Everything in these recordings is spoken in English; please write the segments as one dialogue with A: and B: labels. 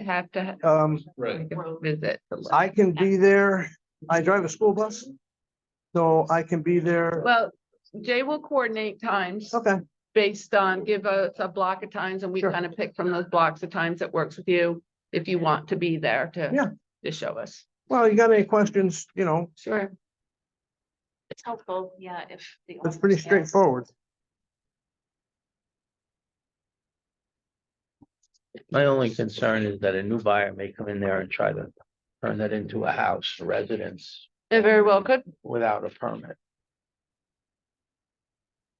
A: have to
B: Um,
C: Right.
A: make a visit. to look.
B: I can be there. I drive a school bus. So I can be there.
A: Well, Jay will coordinate times
B: Okay,
A: based on, give us a block of times and we
B: Sure.
A: kind of pick from those blocks of times that works with you. If you want to be there to.
B: Yeah.
A: To show us.
B: well, you got any questions, you know,
A: Sure.
D: It's helpful, yeah, if. the
B: it's
D: owners
B: pretty
D: know.
B: straightforward.
C: My only concern is that a new buyer may come in there and try to turn that into a house, a residence,
A: It very well could.
C: without a permit.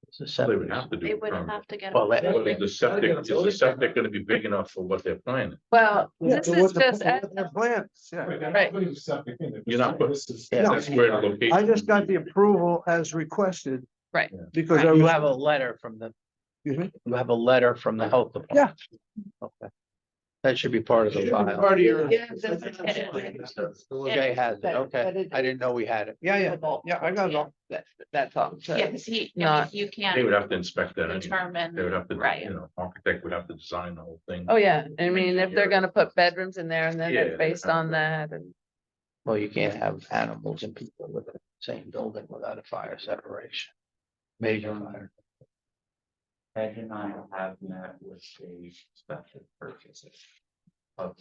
C: It's a
E: They
C: separate.
E: would have to do.
D: They
E: a
D: wouldn't
E: permit.
D: have to get. a
C: Well, that-
E: Well, Is
D: permit.
E: the septic, is the septic gonna be big enough for what they're planning?
A: Well,
B: Yeah,
A: this
B: so
A: is
B: what the-
A: just,
B: what the Plans, yeah.
A: Right.
E: You're not putting-
C: Yeah.
E: That's where the location.
B: I just got the approval as requested.
A: Right.
B: Because I
C: You
B: was,
C: have a letter from the.
B: Excuse
C: You have a letter from the health department. Yeah. Okay. That should be part of the file.
B: Part of your-
A: Yeah, that's-
C: Jay has it, okay. I didn't know we had it.
B: yeah, yeah, yeah, I got it all.
A: that, that's all. So-
D: Yeah, because he,
A: Not-
D: you
E: They
D: can't
E: would have to inspect that anyway. They would
D: determine,
E: have to,
D: Right.
E: you know, architect would have to design the whole thing.
A: Oh, yeah. I mean, if they're
E: Yeah.
A: gonna put bedrooms in there and then
E: Yeah.
A: it's based on that and.
C: Well, you can't have animals and people within the same building without a fire separation. Major fire.
F: Ed and I have met with a special purchaser of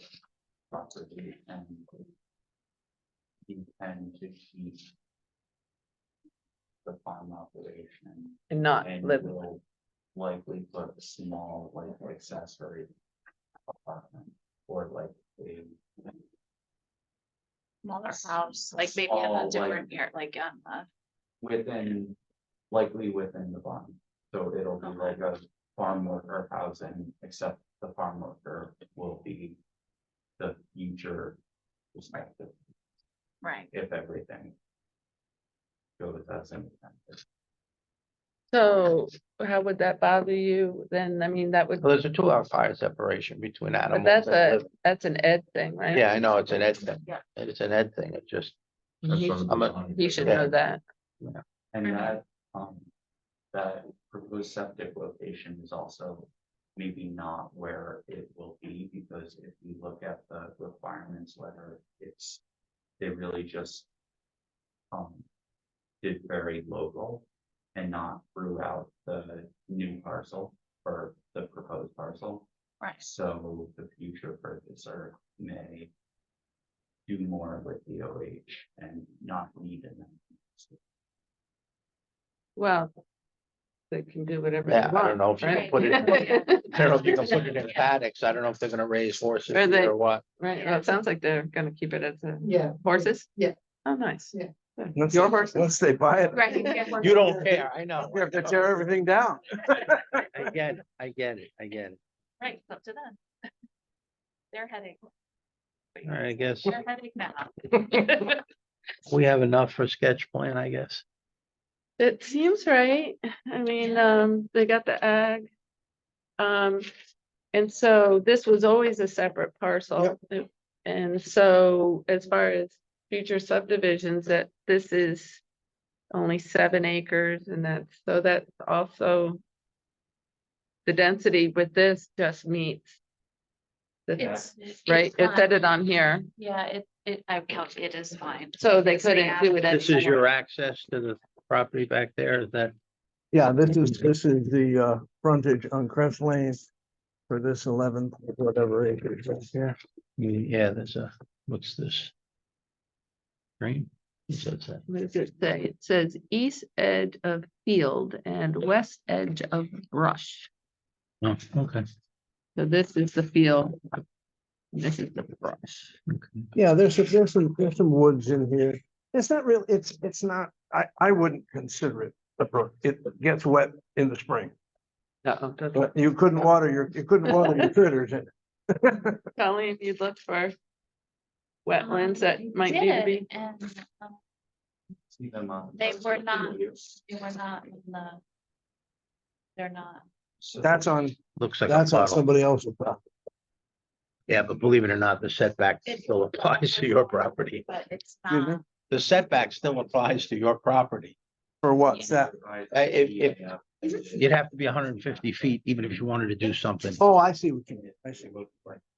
F: property and intend to keep the farm operation
A: and not
F: and
A: live.
F: will likely put a small like accessory apartment or like a
D: smaller house, like maybe in a
F: Small,
D: different year, like um, uh, on the.
F: within, likely within the barn. So it'll be like a farm worker housing, except the farm worker will be the future perspective,
D: Right.
F: if everything goes as intended.
A: So how would that bother you then? I mean, that would,
C: Well, there's a two hour fire separation between
A: but
C: animals.
A: that's
C: that
A: a,
C: live-
A: that's an Ed thing, right?
C: Yeah, I know, it's an Ed thing.
D: Yeah.
C: It's an Ed thing, it just,
E: That's
A: He-
E: on the
C: I'm a-
E: design.
A: He should
C: Yeah.
A: know that.
F: And
D: Mhm.
F: that, um, that proposed septic location is also maybe not where it will be, because if you look at the requirements letter, it's, they really just um, did very local and not throughout the new parcel or the proposed parcel.
D: Right.
F: So the future purchaser may do more with the OH and not need an
A: Well. They can do whatever they
C: yeah, I
A: want.
C: don't know if you can
A: right?
C: put it, in-
D: Yeah.
C: I don't know if you can put it in paddocks, I don't know if they're gonna raise horses
A: Or they-
C: or what.
A: Right, well, it sounds like they're gonna keep it as a
G: Yeah.
A: horses.
G: Yeah.
A: Oh, nice.
G: Yeah.
A: Good.
B: Once-
A: Your horses.
B: Once they buy it,
D: Right. yeah.
C: You don't care, I know.
B: we have to tear everything down.
C: I get it, I get it, I get it.
D: Right, it's up to them. They're heading,
C: All right, I guess
D: they're heading now.
C: we have enough for sketch plan, I guess.
A: It seems right. I mean,
D: Yeah.
A: um, they got the ag. Um, and so this was always a separate parcel. It- And so as far as future subdivisions, that this is only seven acres and that's, so that's also the density with this just meets. the-
D: It's- it's
A: Right, it
D: fine.
A: said it on here,
D: Yeah, it, it, I count, it is fine.
A: so they
D: Because they
A: couldn't
D: have
A: do it.
D: to-
C: This is your access to the property back there, is that?
B: Yeah, this is, this is the uh frontage on Crest Lane for this eleven, whatever acres right here.
C: Yeah, there's a, what's this? Green? What's that?
A: What does it say? It says east edge of field and west edge of brush.
C: Oh, okay.
A: So this is the field. This is the brush.
B: Yeah, there's, some- there's some, there's some woods in here. It's not real, it's, it's not, I, I wouldn't consider it a brook. It gets wet in the spring.
A: Uh-oh.
B: But you couldn't water your, you couldn't water your critters in it.
A: Colleen, you looked for wetlands that
D: Um,
A: might need to
D: did,
A: be,
D: And um,
F: See them on.
D: They were not- they were not in the. They're not.
B: That's on,
C: Looks like a
B: that's on
C: puddle.
B: somebody else's property.
C: Yeah, but believe it or not, the setback still applies to your property.
D: But it's
B: Excuse me?
D: not,
C: The setback still applies to your property.
B: For what's that?
C: if- You'd have to be hundred and fifty feet, even if you wanted to do something.
B: Oh, I see what you mean. I see what.